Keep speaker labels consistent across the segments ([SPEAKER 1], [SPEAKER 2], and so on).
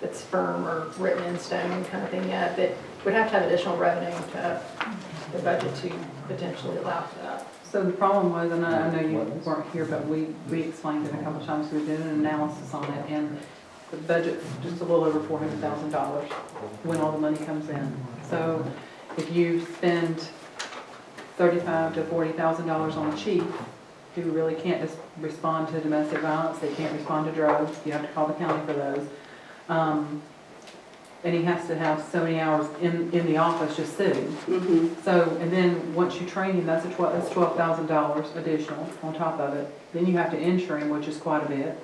[SPEAKER 1] that's firm or written in stone kind of thing yet, but we'd have to have additional revenue to have the budget to potentially allow for that.
[SPEAKER 2] So the problem was, and I I know you weren't here, but we, we explained it a couple times, we did an analysis on it, and the budget's just a little over four hundred thousand dollars when all the money comes in. So if you spend thirty-five to forty thousand dollars on a chief, who really can't just respond to domestic violence, they can't respond to drugs, you have to call the county for those. Um, And he has to have so many hours in, in the office just sitting.
[SPEAKER 1] Mm-hmm.
[SPEAKER 3] Mhm.
[SPEAKER 2] So, and then, once you train him, that's a twelve, that's twelve thousand dollars additional on top of it. Then you have to insure him, which is quite a bit,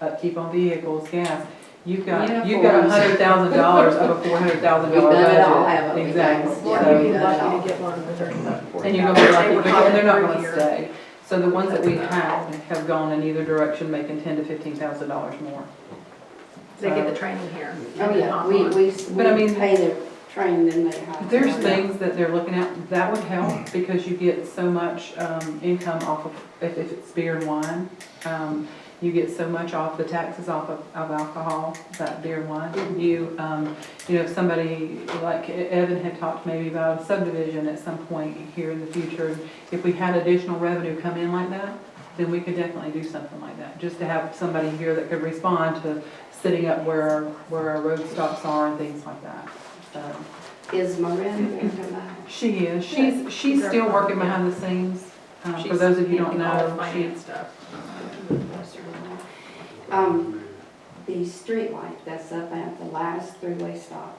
[SPEAKER 2] upkeep on vehicles, gas. You've got, you've got a
[SPEAKER 3] Uniforms.
[SPEAKER 2] hundred thousand dollars of a four hundred thousand
[SPEAKER 3] We've
[SPEAKER 2] dollar budget.
[SPEAKER 3] done it all, haven't we?
[SPEAKER 2] Exactly.
[SPEAKER 3] Yeah.
[SPEAKER 1] Well,
[SPEAKER 2] So-
[SPEAKER 1] you'd be lucky to get one with thirty-five, forty.
[SPEAKER 2] and you're gonna be
[SPEAKER 1] They
[SPEAKER 2] lucky,
[SPEAKER 1] were
[SPEAKER 2] because they're not
[SPEAKER 1] hired
[SPEAKER 2] gonna
[SPEAKER 1] every year.
[SPEAKER 2] stay. So the ones that we have have gone in either direction, making ten to fifteen thousand dollars more.
[SPEAKER 1] They get the training here.
[SPEAKER 3] Oh, yeah, we, we,
[SPEAKER 2] But I
[SPEAKER 3] we
[SPEAKER 2] mean-
[SPEAKER 3] pay the train, then they hire.
[SPEAKER 2] There's things that they're looking at, that would help, because you get so much, um, income off of, if, if it's beer and wine. Um, you get so much off the taxes off of, of alcohol, that beer and wine. You, um, you know, if somebody, like E-, Evan had talked maybe about a subdivision at some point here in the future. If we had additional revenue come in like that, then we could definitely do something like that. Just to have somebody here that could respond to setting up where, where our road stops are and things like that. So.
[SPEAKER 3] Is Miranda gonna come back?
[SPEAKER 2] She is. She's, she's still working behind the scenes. Uh, For
[SPEAKER 1] She's
[SPEAKER 2] those of you who don't
[SPEAKER 1] handling all the
[SPEAKER 2] know, she,
[SPEAKER 1] Finance stuff.
[SPEAKER 3] Um, the street light that's up at the last three-way stop.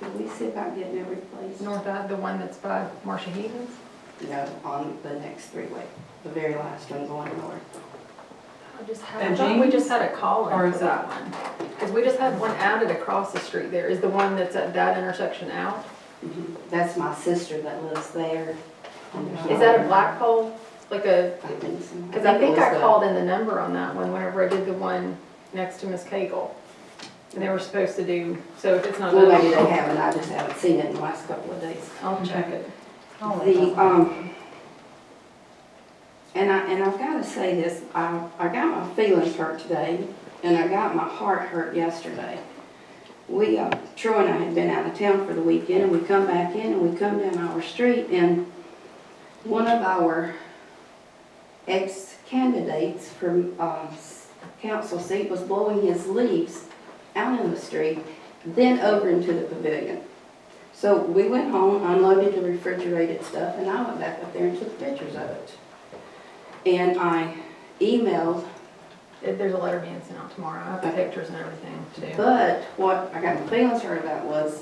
[SPEAKER 3] Did we see about getting it replaced?
[SPEAKER 1] North Ave, the one that's by Marsha Heaton's?
[SPEAKER 3] No, on the next three-way, the very last one going north.
[SPEAKER 1] I just had, I
[SPEAKER 2] And
[SPEAKER 1] thought we
[SPEAKER 2] Jean's?
[SPEAKER 1] just had a call
[SPEAKER 2] Or
[SPEAKER 1] in for
[SPEAKER 2] is
[SPEAKER 1] that one. Because we just had one added across the street there. Is the one that's at that intersection out?
[SPEAKER 3] That's my sister that lives there.
[SPEAKER 1] Mm-hmm. Is that a black pole? Like a,
[SPEAKER 3] I think so.
[SPEAKER 1] because I think
[SPEAKER 3] it was
[SPEAKER 1] I
[SPEAKER 3] the-
[SPEAKER 1] called in the number on that one whenever I did the one next to Miss Cagle. And they were supposed to do, so if it's not
[SPEAKER 3] Well, maybe they
[SPEAKER 1] done,
[SPEAKER 3] haven't, I just haven't seen it in the last couple of days.
[SPEAKER 1] I'll check
[SPEAKER 3] Mm-hmm.
[SPEAKER 1] it.
[SPEAKER 2] Oh,
[SPEAKER 3] The, um, and I, and I've gotta say this, I, I got my feelings hurt today, and I got my heart hurt yesterday. We, uh, Troy and I had been out of town for the weekend, and we come back in, and we come down our street, and one of our ex-candidates for, uh, s- council seat was blowing his leaves out in the street, then over into the pavilion. So we went home, unloaded the refrigerated stuff, and I went back up there and took pictures of it. And I emailed,
[SPEAKER 1] It- There's a letter being sent out tomorrow. I have the
[SPEAKER 3] Okay.
[SPEAKER 1] pictures and everything too.
[SPEAKER 3] but what I got my feelings hurt about was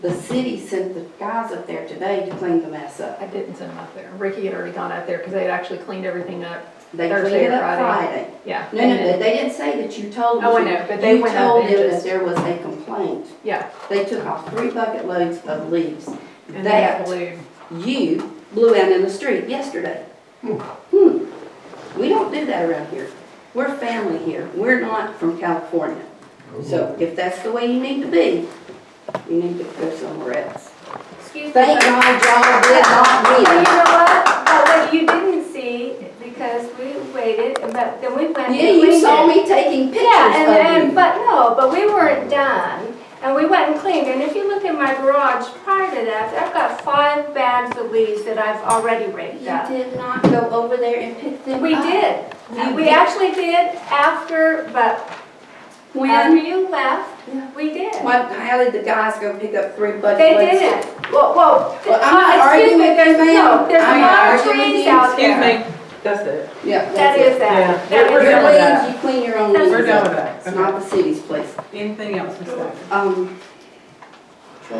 [SPEAKER 3] the city sent the guys up there today to clean the mess up.
[SPEAKER 1] I didn't send them up there. Ricky had already gone out there because they had actually cleaned everything up.
[SPEAKER 3] They cleaned
[SPEAKER 1] Thursday or
[SPEAKER 3] it up
[SPEAKER 1] Friday?
[SPEAKER 3] Friday.
[SPEAKER 1] Yeah.
[SPEAKER 3] No, no, but they didn't say that you told them.
[SPEAKER 1] Oh, I know, but they went up and
[SPEAKER 3] You told them that
[SPEAKER 1] just-
[SPEAKER 3] there was a complaint.
[SPEAKER 1] Yeah.
[SPEAKER 3] They took off three bucket loads of leaves.
[SPEAKER 1] And they got
[SPEAKER 3] That-
[SPEAKER 1] blue.
[SPEAKER 3] you blew out in the street yesterday. Hmm. We don't do that around here. We're family here. We're not from California.
[SPEAKER 2] Oh.
[SPEAKER 3] So if that's the way you need to be, you need to go somewhere else.
[SPEAKER 4] Excuse me.
[SPEAKER 3] Thank
[SPEAKER 4] but-
[SPEAKER 3] God y'all did not
[SPEAKER 4] Well, you
[SPEAKER 3] win.
[SPEAKER 4] know what? But what you didn't see, because we waited, but then we went. and
[SPEAKER 3] Yeah, you
[SPEAKER 4] cleaned
[SPEAKER 3] saw
[SPEAKER 4] it.
[SPEAKER 3] me taking
[SPEAKER 4] Yeah, and, and,
[SPEAKER 3] pictures of you.
[SPEAKER 4] but no, but we weren't done. And we went and cleaned, and if you look in my garage prior to that, I've got five bags of leaves that I've already raked
[SPEAKER 3] You
[SPEAKER 4] up.
[SPEAKER 3] did not go over there and pick them up.
[SPEAKER 4] We did.
[SPEAKER 3] You
[SPEAKER 4] We
[SPEAKER 3] did.
[SPEAKER 4] actually did after, but after
[SPEAKER 3] When,
[SPEAKER 4] you
[SPEAKER 3] Yeah.
[SPEAKER 4] left, we did.
[SPEAKER 3] when, how did the guys go pick up three bucket
[SPEAKER 4] They
[SPEAKER 3] loads?
[SPEAKER 4] didn't. Well, well,
[SPEAKER 3] Well, I'm not
[SPEAKER 4] uh, excuse
[SPEAKER 3] arguing
[SPEAKER 4] me,
[SPEAKER 3] with you,
[SPEAKER 4] there's,
[SPEAKER 3] ma'am.
[SPEAKER 4] no, there's
[SPEAKER 3] I'm
[SPEAKER 4] a
[SPEAKER 3] not
[SPEAKER 4] lot of
[SPEAKER 3] arguing with
[SPEAKER 4] trees
[SPEAKER 3] you.
[SPEAKER 4] out
[SPEAKER 2] Excuse
[SPEAKER 4] there.
[SPEAKER 2] me, that's it.
[SPEAKER 3] Yeah.
[SPEAKER 4] That is that.
[SPEAKER 2] Yeah.
[SPEAKER 4] That
[SPEAKER 3] Your
[SPEAKER 4] is
[SPEAKER 2] done with
[SPEAKER 3] leaves,
[SPEAKER 2] that.
[SPEAKER 3] you clean your own leaves.
[SPEAKER 2] We're done
[SPEAKER 3] up.
[SPEAKER 2] with that.
[SPEAKER 3] It's not the city's place.
[SPEAKER 2] Anything else, Ms. Decker?
[SPEAKER 3] Um, so,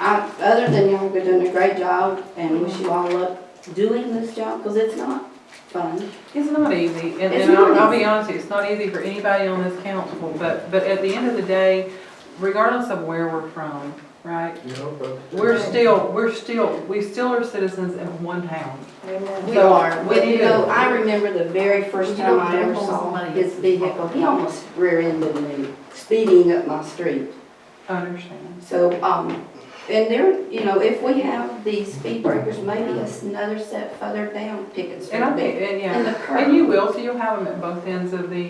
[SPEAKER 3] I, other than y'all been doing a great job and wish you all luck doing this job, because it's not fun.
[SPEAKER 2] It's not easy, and,
[SPEAKER 3] It's
[SPEAKER 2] and I'll,
[SPEAKER 3] not
[SPEAKER 2] I'll be
[SPEAKER 3] easy.
[SPEAKER 2] honest with you, it's not easy for anybody on this council, but, but at the end of the day, regardless of where we're from, right? We're still, we're still, we still are citizens in one town.
[SPEAKER 3] We
[SPEAKER 2] So,
[SPEAKER 3] are,
[SPEAKER 2] we
[SPEAKER 3] but you
[SPEAKER 2] do.
[SPEAKER 3] know, I remember the very first
[SPEAKER 1] You
[SPEAKER 3] time
[SPEAKER 1] don't
[SPEAKER 3] I ever
[SPEAKER 1] gamble with
[SPEAKER 3] saw
[SPEAKER 1] money.
[SPEAKER 3] his vehicle, he almost rear-ended me, speeding up my street.
[SPEAKER 2] I understand.
[SPEAKER 3] So, um, and there, you know, if we have these speed breakers, maybe it's another step further down Pickens Street.
[SPEAKER 2] And I think, and yeah,
[SPEAKER 3] And the curve.
[SPEAKER 2] and you will, so you'll have them at both ends of the,